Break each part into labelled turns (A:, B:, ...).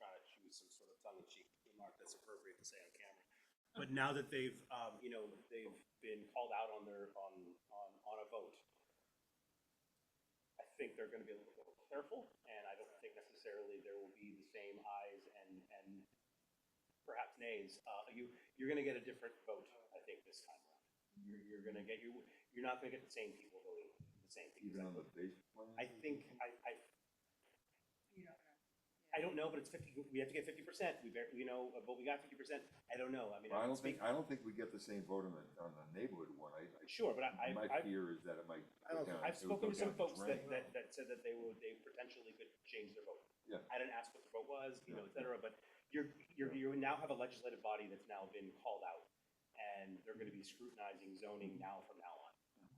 A: some sort of tongue-in-cheek remark that's appropriate to say on camera. But now that they've, um, you know, they've been called out on their, on, on, on a vote, I think they're gonna be a little more careful, and I don't think necessarily there will be the same ayes and, and perhaps nays. Uh, you, you're gonna get a different vote, I think, this time around. You're, you're gonna get, you, you're not gonna get the same people voting, the same people.
B: Even on the base plan?
A: I think, I, I
C: You don't know.
A: I don't know, but it's fifty, we have to get fifty percent, we, bar- you know, but we got fifty percent, I don't know, I mean, I
B: Well, I don't
A: don't speak,
B: think, I don't think we get the same vote on the, on the neighborhood one. I,
A: sure, but
B: I,
A: I, I,
B: my
A: I've-
B: fear is that it might.
D: I don't-
B: go down-
A: I've
B: it would
A: spoken to
B: go
A: some
B: down the
A: folks that,
B: drain.
A: that, that said that they would, they potentially could change their vote.
B: Yeah.
A: I didn't ask what the vote was, you know, et
B: Yeah.
A: cetera, but you're, you're, you now have a legislative body that's now been called out, and they're gonna be scrutinizing zoning now from now on,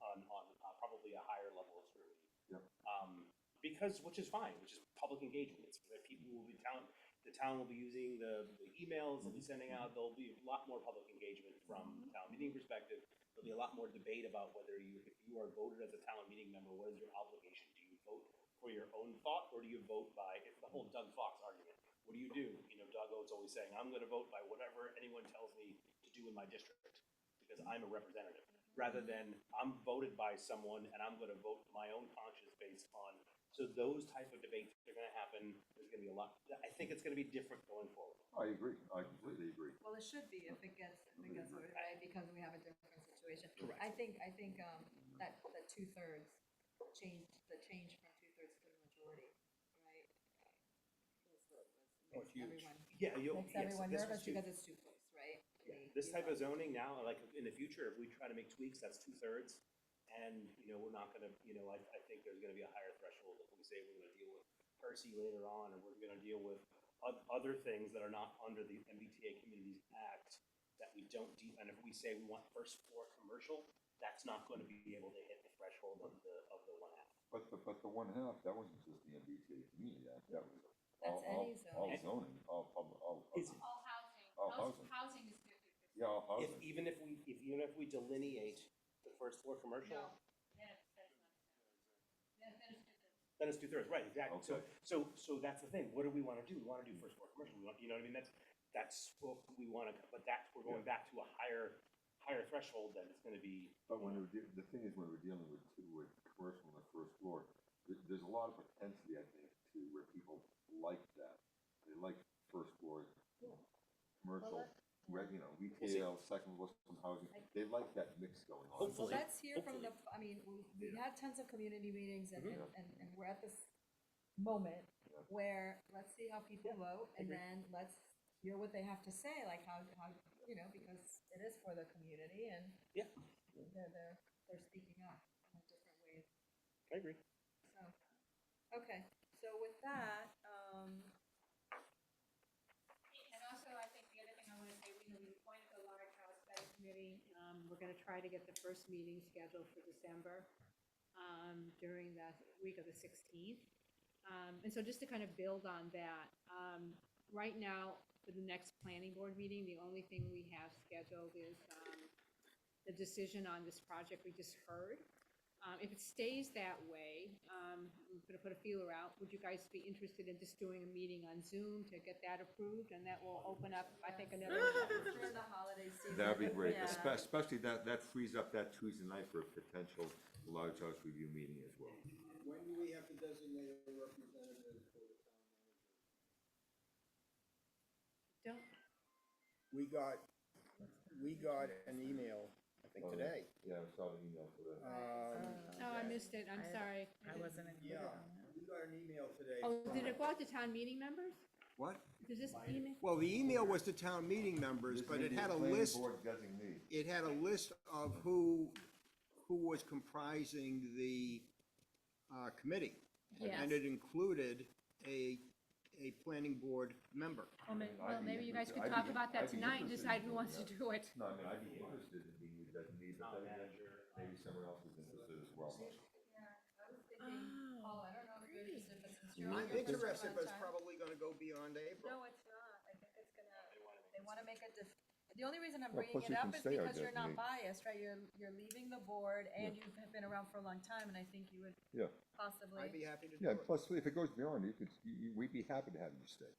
A: on, on uh, probably a higher level of scrutiny.
B: Yep.
A: Um, because, which is fine, which is public engagement, it's, that people will be town, the town will be using the, the emails they'll be
B: Mm-hmm.
A: sending out, there'll be a lot more public engagement from the town meeting perspective. There'll be a lot more debate about whether you, if you are voted as a town meeting member, what is your obligation? Do you vote for your own thought, or do you vote by, it's the whole Doug Fox argument. What do you do? You know, Doug Oates always saying, I'm gonna vote by whatever anyone tells me to do in my district, because I'm a representative. Rather than, I'm voted by someone and I'm gonna vote my own conscience based on, so those type of debates are gonna happen, there's gonna be a lot, I think it's gonna be different going forward.
B: I agree, I completely agree.
C: Well, it should be if it gets, if it gets, voted, right, because we have a different situation. I think, I think, um, that, that two-thirds change, the change from two-thirds to the majority, right?
D: Oh, it's huge.
C: Everyone-
A: Yeah, you'll,
C: Makes
A: yes,
C: everyone
A: this
C: nervous
A: was huge.
C: because it's too close, right?
A: Yeah,
C: The-
A: This
C: the
A: type of
C: vote.
A: zoning now, like in the future, if we try to make tweaks, that's two thirds. And, you know, we're not gonna, you know, I, I think there's gonna be a higher threshold if we say we're gonna deal with Percy later on, or we're gonna deal with oth- other things that are not under the MBTA Communities Act that we don't de, and if we say we want first floor commercial, that's not gonna be able to hit the threshold of the, of the one half.
B: But the, but the one half, that wasn't just the MBTA community, that, that was all,
C: That's
B: all,
C: any
B: all
C: zoning.
B: zoning, all, public- all,
A: Is-
B: all-
E: All housing.
B: Oh,
E: House-
B: housing.
E: Housing is fifty percent.
B: yeah, all
A: If,
B: housing.
A: even if we, if, even if we delineate the first floor commercial,
E: No, then it's, that's not. Then, then it's different.
A: Then it's two thirds, right, exactly. So,
B: Okay.
A: so, so that's the thing. What do we want to do? We want to do first floor commercial. We want, you know what I mean? That's, that's what we want to, but that's, we're going back to a higher, higher threshold that it's going to be.
B: But when we're, de- the thing is, when we're dealing with, with commercial on the first floor, there, there's a lot of propensity, I think, to where people like that. They like first floor, commercial,
C: let-
B: re- you know, retail, second floor, some housing, they like that mix going on.
C: Well,
A: Hopefully. Mm-hmm.
C: let's hear from the, I mean, we, we had tons of community meetings and, and,
B: Mhm.
C: and and we're at this moment
B: Yeah.
C: where, let's see how people vote, and
A: agree.
C: then let's hear what they have to say, like how, how, you know, because it is for the community and
A: Yeah.
C: they're, they're, they're speaking up in a different way,
A: I agree.
C: so, okay, so with that, um,
E: And also, I think the other thing I want to say, we know we appointed the large house study committee. Um, we're gonna try to get the first meeting scheduled for December, um, during the week of the sixteenth. Um, and so just to kind of build on that, um, right now, for the next planning board meeting, the only thing we have scheduled is, um, the decision on this project we just heard. Um, if it stays that way, um, I'm gonna put a feeler out, would you guys be interested in just doing a meeting on Zoom to get that approved, and that will open up, I think, another.
C: for the holiday season.
B: That'd be great,
C: Yeah.
B: espe- especially that, that frees up that Tuesday night for a potential large house review meeting as well.
D: When do we have to designate a representative for the town manager?
E: Don't,
D: We got, we got an email, I think
B: Oh,
D: today.
B: Yeah, I saw the email for that.
D: Um,
E: oh, I missed it, I'm
F: I-
E: sorry.
F: I wasn't included
D: Yeah,
F: on that.
D: we got an email today.
E: Oh,
D: from-
E: did it go out to town meeting members?
G: What?
E: Does this email?
G: Well, the email was to town meeting members, but it had a list,
B: Board designee.
G: it had a list of who, who was comprising the, uh, committee. And it included a, a planning board member.
E: Well, may-
B: I'd
E: well,
B: be
E: maybe you guys
B: interested-
E: could
B: I'd
E: talk
B: be-
E: about
B: I'd
E: that
B: be
E: tonight and
B: interested
E: decide
B: in
E: who
B: doing
E: wants to
B: that.
E: do it.
B: No, I mean, I'd be interested in being the designee,
A: Town
B: but then again,
A: manager, um,
B: maybe someone else is interested as well.
C: Yeah, I was thinking,
E: Oh.
C: Paul, I don't know if you're interested, but since you're on
G: I'm
C: your first
G: interested, but it's
C: time-
G: probably gonna go beyond April.
C: No, it's not, I think it's gonna.
A: They wanna make
C: They want to make a dif- the only reason I'm
B: Well,
C: bringing
B: plus
C: it
B: you
C: up
B: can
C: is
B: stay our
C: because you're not
B: designate.
C: biased, right? You're, you're leaving the board and you've been around for a long time and I think you would
B: Yeah,
C: possibly.
G: I'd be happy to do
B: yeah,
G: it.
B: plus, if it goes beyond, you could, you, you- we'd be happy to have you stay.